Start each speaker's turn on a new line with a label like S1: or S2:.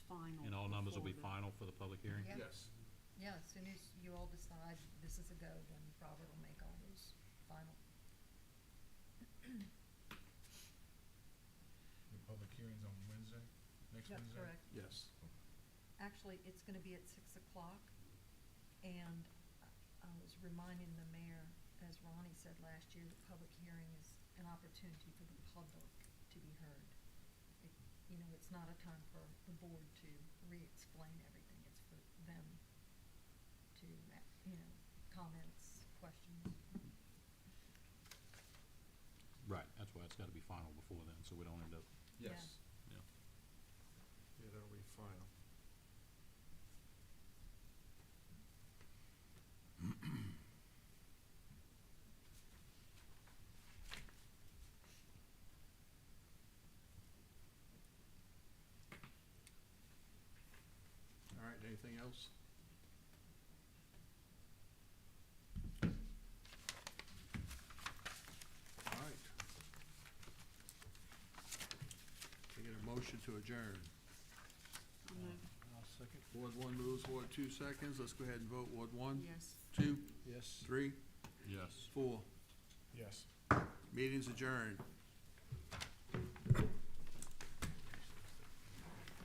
S1: numbers will be final
S2: forward.
S1: for the public hearing?
S2: Yeah.
S3: Yes,
S2: Yeah, as soon as you all decide this is a go, then Robert will make all those final.
S3: the public hearing's on Wednesday, next
S2: Yep,
S3: Wednesday?
S2: correct.
S1: Yes.
S2: Actually, it's gonna be at six o'clock, and I I was reminding the mayor, as Ronnie said last year, the public hearing is an opportunity for the public to be heard. It- You know, it's not a time for the board to re-explain everything, it's for them to, uh, you know, comments, questions.
S1: Right, that's why it's gotta be final before then, so we don't end up,
S2: Yeah.
S3: Yes.
S1: yeah.
S3: Yeah, that'll be final. All right, anything else? All right. Can I get a motion to adjourn?
S4: I'll second.
S3: Ward one moves, Ward two seconds, let's go ahead and vote, Ward one,
S2: Yes.
S3: two,
S4: Yes.
S3: three,
S1: Yes.
S3: four.
S4: Yes.
S3: Meeting's adjourned.